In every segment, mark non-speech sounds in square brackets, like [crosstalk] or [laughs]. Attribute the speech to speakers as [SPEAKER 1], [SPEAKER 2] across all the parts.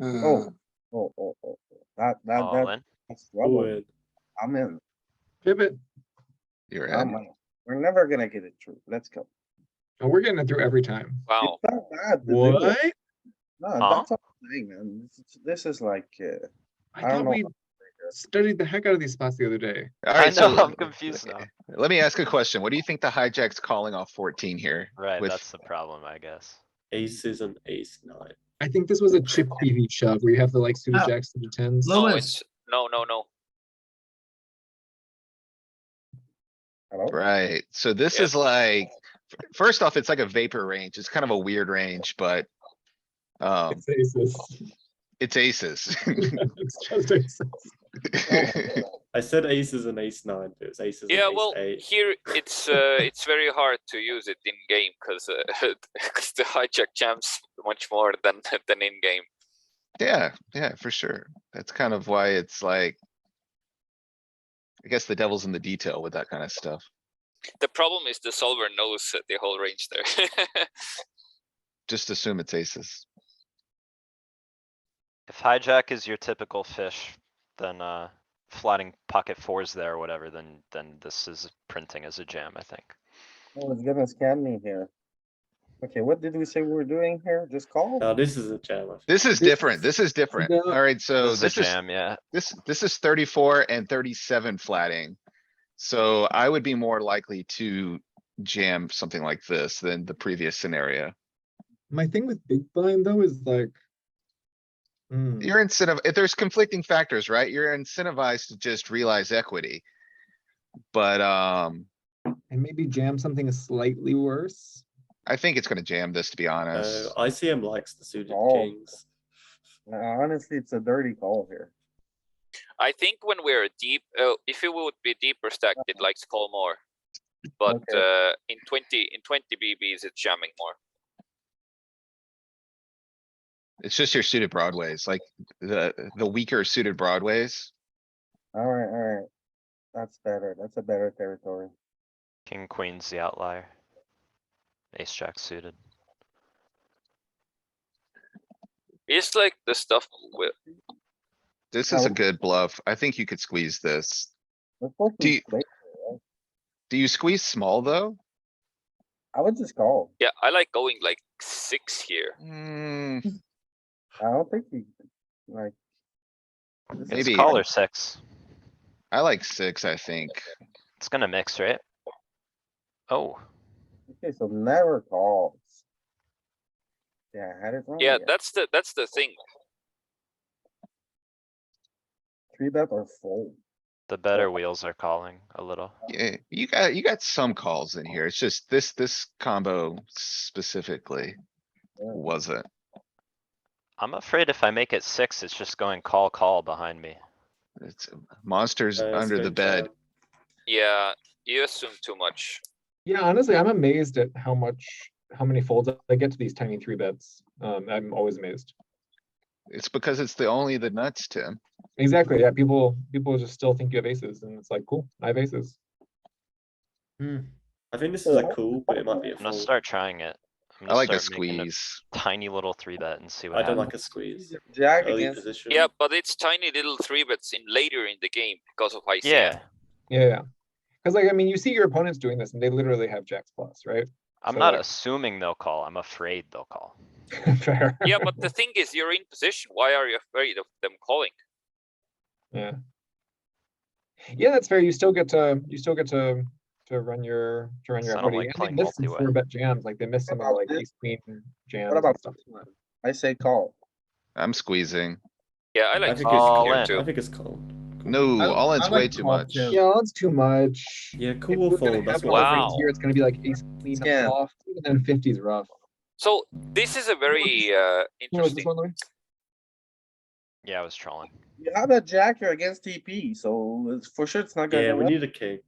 [SPEAKER 1] Oh.
[SPEAKER 2] Uh,
[SPEAKER 1] Oh, oh, oh, oh. that, that,
[SPEAKER 3] All
[SPEAKER 1] that,
[SPEAKER 3] in.
[SPEAKER 1] that's trouble. I'm in.
[SPEAKER 4] pivot.
[SPEAKER 5] You're
[SPEAKER 1] I'm
[SPEAKER 5] in.
[SPEAKER 1] in. We're never gonna get it through. Let's go.
[SPEAKER 4] And Oh, we're getting it through every time.
[SPEAKER 3] Wow,
[SPEAKER 1] It's not bad. the video.
[SPEAKER 4] What?
[SPEAKER 1] No,
[SPEAKER 3] Huh?
[SPEAKER 1] that's all I'm saying, man. This is- This is like, uh, I
[SPEAKER 4] I
[SPEAKER 1] don't
[SPEAKER 4] thought
[SPEAKER 1] know.
[SPEAKER 4] we studied the heck out of these spots the other day.
[SPEAKER 3] I
[SPEAKER 5] Alright,
[SPEAKER 3] know,
[SPEAKER 5] so
[SPEAKER 3] I'm confused now.
[SPEAKER 5] let me ask a question. What do you think the hijack's calling off fourteen here?
[SPEAKER 3] Right,
[SPEAKER 5] with-
[SPEAKER 3] that's the problem, I guess.
[SPEAKER 6] aces and ace nine.
[SPEAKER 4] I think this was a chip PV shove where you have the like suited
[SPEAKER 7] Oh.
[SPEAKER 4] jacks suited tens.
[SPEAKER 7] No,
[SPEAKER 3] No,
[SPEAKER 7] it's-
[SPEAKER 3] it's, no, no, no.
[SPEAKER 1] hello?
[SPEAKER 5] Right, so this
[SPEAKER 3] Yeah.
[SPEAKER 5] is like, f- first off, it's like a vapor range. It's kind of a weird range, but. Um,
[SPEAKER 1] [laughs]
[SPEAKER 4] It's aces.
[SPEAKER 5] it's aces.
[SPEAKER 4] It's just aces.
[SPEAKER 6] I said aces and ace nine, but it was aces.
[SPEAKER 8] Yeah,
[SPEAKER 6] and ace
[SPEAKER 8] well,
[SPEAKER 6] eight.
[SPEAKER 8] here it's uh, it's very hard to use it in game because [laughs] the hijack jams much more than [laughs] than in game.
[SPEAKER 5] [laughs] Yeah, yeah, for sure. That's kind of why it's like. I guess the devil's in the detail with that kind of stuff.
[SPEAKER 8] The problem is the solver knows the whole range there. [laughs]
[SPEAKER 5] Just assume it's aces.
[SPEAKER 3] If hijack is your typical fish, then, uh, flatting pocket fours there or whatever, then, then this is printing as a jam, I think.
[SPEAKER 1] Oh, it's gonna scam me here. Okay, what did we say we were doing here? Just call?
[SPEAKER 4] Uh,
[SPEAKER 6] Now this is a jam. I think.
[SPEAKER 5] This is
[SPEAKER 4] This
[SPEAKER 5] different. This is different.
[SPEAKER 4] no,
[SPEAKER 5] Alright, so
[SPEAKER 3] This is a
[SPEAKER 5] this is,
[SPEAKER 3] jam, yeah.
[SPEAKER 5] this, this is thirty-four and thirty-seven flatting. So I would be more likely to jam something like this than the previous scenario.
[SPEAKER 4] My thing with big blind though is like. hmm,
[SPEAKER 5] You're incentive, if there's conflicting factors, right? You're incentivized to just realize equity. But, um,
[SPEAKER 4] and maybe jam something slightly worse.
[SPEAKER 5] I think it's gonna jam this, to be honest.
[SPEAKER 6] Uh, ICM likes the suited
[SPEAKER 1] Oh.
[SPEAKER 6] kings.
[SPEAKER 1] Uh, Honestly, it's a dirty call here.
[SPEAKER 8] I think when we're deep, uh, if it would be deeper stacked, it likes call more. But
[SPEAKER 1] Okay.
[SPEAKER 8] uh, in twenty in twenty BBs, it's jamming more.
[SPEAKER 5] It's just your suited broadways, like the, the weaker suited broadways.
[SPEAKER 1] Alright, alright. That's better. That's a better territory.
[SPEAKER 3] King, queen's the outlier. Ace jack suited.
[SPEAKER 8] It's like the stuff with
[SPEAKER 5] This is a
[SPEAKER 1] Oh.
[SPEAKER 5] good bluff. I think you could squeeze this.
[SPEAKER 1] We're supposed to
[SPEAKER 5] Do you-
[SPEAKER 1] play-
[SPEAKER 5] Do you squeeze small, though?
[SPEAKER 1] I would just call.
[SPEAKER 8] yeah. I like going like six here.
[SPEAKER 5] Hmm,
[SPEAKER 1] I don't think you, like. this is-
[SPEAKER 3] It's
[SPEAKER 5] Maybe.
[SPEAKER 3] call or six.
[SPEAKER 5] I like six, I think.
[SPEAKER 3] It's gonna mix, right? Oh,
[SPEAKER 1] Okay, so never calls. Oh, Yeah, I had it wrong.
[SPEAKER 8] Yeah,
[SPEAKER 1] again.
[SPEAKER 8] that's the that's the thing.
[SPEAKER 1] Three bet or fold.
[SPEAKER 3] the better wheels are calling a little.
[SPEAKER 5] Yeah, you got, you got some calls in here. It's just this, this combo specifically wasn't.
[SPEAKER 3] I'm afraid if I make it six, it's just going call, call behind me.
[SPEAKER 5] It's monsters
[SPEAKER 6] Uh, it's
[SPEAKER 5] under the
[SPEAKER 6] going
[SPEAKER 5] bed.
[SPEAKER 6] jam.
[SPEAKER 8] Yeah, you assume too much.
[SPEAKER 4] Yeah, honestly, I'm amazed at how much, how many folds I get to these tiny three bets. Um, I'm always amazed.
[SPEAKER 5] It's because it's the only the nuts, Tim.
[SPEAKER 4] Exactly. Yeah, people people just still think you have aces, and it's like, cool, I have aces.
[SPEAKER 6] I think this is a cool, but it might be a
[SPEAKER 3] I'm gonna
[SPEAKER 6] fold.
[SPEAKER 3] start trying it. I'm
[SPEAKER 5] I
[SPEAKER 3] gonna
[SPEAKER 5] like a
[SPEAKER 3] start making
[SPEAKER 5] squeeze.
[SPEAKER 3] Tiny little three bet and see what
[SPEAKER 6] I don't
[SPEAKER 3] happens.
[SPEAKER 6] like a squeeze.
[SPEAKER 1] Jack
[SPEAKER 6] Early
[SPEAKER 1] against,
[SPEAKER 6] position.
[SPEAKER 8] Yeah, but it's tiny little three bets in later in the game because of ICM.
[SPEAKER 3] Yeah,
[SPEAKER 4] Yeah, yeah. Because like I mean, you see your opponents doing this, and they literally have jacks plus, right? [laughs]
[SPEAKER 3] I'm
[SPEAKER 4] So,
[SPEAKER 3] not
[SPEAKER 4] like-
[SPEAKER 3] assuming they'll call. I'm afraid they'll call.
[SPEAKER 4] Fair.
[SPEAKER 8] Yeah, but the thing is, you're in position. Why are you afraid of them calling?
[SPEAKER 4] Yeah. Yeah, that's fair. You still get to you still get to to run your to run your
[SPEAKER 3] So I don't
[SPEAKER 4] equity.
[SPEAKER 3] like
[SPEAKER 4] and
[SPEAKER 3] playing
[SPEAKER 4] they missed some
[SPEAKER 3] multi-way.
[SPEAKER 4] four bet jams. Like they missed some of the,
[SPEAKER 1] about
[SPEAKER 4] like
[SPEAKER 1] this?
[SPEAKER 4] ace queen jams.
[SPEAKER 1] what
[SPEAKER 4] and
[SPEAKER 1] about
[SPEAKER 4] stuff.
[SPEAKER 1] this one? I say call.
[SPEAKER 5] I'm squeezing.
[SPEAKER 8] Yeah, I like
[SPEAKER 6] think
[SPEAKER 3] it's
[SPEAKER 4] Oh,
[SPEAKER 8] squeezing
[SPEAKER 3] all
[SPEAKER 8] here
[SPEAKER 3] in.
[SPEAKER 6] I
[SPEAKER 8] too.
[SPEAKER 6] think it's cool.
[SPEAKER 5] No,
[SPEAKER 4] I-
[SPEAKER 5] all in's
[SPEAKER 4] I
[SPEAKER 5] way
[SPEAKER 4] like
[SPEAKER 5] too
[SPEAKER 4] call,
[SPEAKER 5] much.
[SPEAKER 4] too. Yeah, that's too much.
[SPEAKER 6] Yeah,
[SPEAKER 4] If
[SPEAKER 6] cool
[SPEAKER 4] we're
[SPEAKER 6] or
[SPEAKER 4] gonna
[SPEAKER 6] fold. That's
[SPEAKER 4] have
[SPEAKER 6] what.
[SPEAKER 8] I
[SPEAKER 6] I
[SPEAKER 4] all
[SPEAKER 6] think.
[SPEAKER 4] these here, it's gonna be like ace queen
[SPEAKER 1] Scam.
[SPEAKER 4] off, even then fifty's rough.
[SPEAKER 8] So this is a very uh,
[SPEAKER 4] You know, is this
[SPEAKER 8] interesting.
[SPEAKER 4] one, Louis?
[SPEAKER 3] Yeah, I was trolling.
[SPEAKER 1] You have a jack, you're against TP, so it's for sure it's not gonna.
[SPEAKER 6] Yeah,
[SPEAKER 1] go
[SPEAKER 6] we
[SPEAKER 1] well.
[SPEAKER 6] need a king.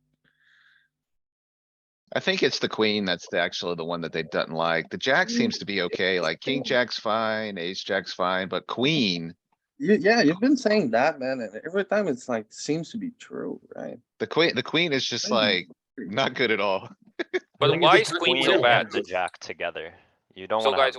[SPEAKER 5] I think it's the queen that's the actually the one that they doesn't like. The jack seems to be okay, like king jack's fine, ace jack's fine, but queen,
[SPEAKER 1] You- Yeah, you've been saying that, man, and every time it's like, seems to be true, right?
[SPEAKER 5] the queen, the queen is just
[SPEAKER 1] Queen.
[SPEAKER 5] like not good at all.
[SPEAKER 8] But
[SPEAKER 4] think it's
[SPEAKER 8] why
[SPEAKER 4] a
[SPEAKER 8] is
[SPEAKER 4] good
[SPEAKER 8] queen
[SPEAKER 4] one.
[SPEAKER 8] so
[SPEAKER 3] and
[SPEAKER 8] bad? [laughs]
[SPEAKER 3] The jack together. You don't
[SPEAKER 8] So
[SPEAKER 3] wanna have
[SPEAKER 8] guys,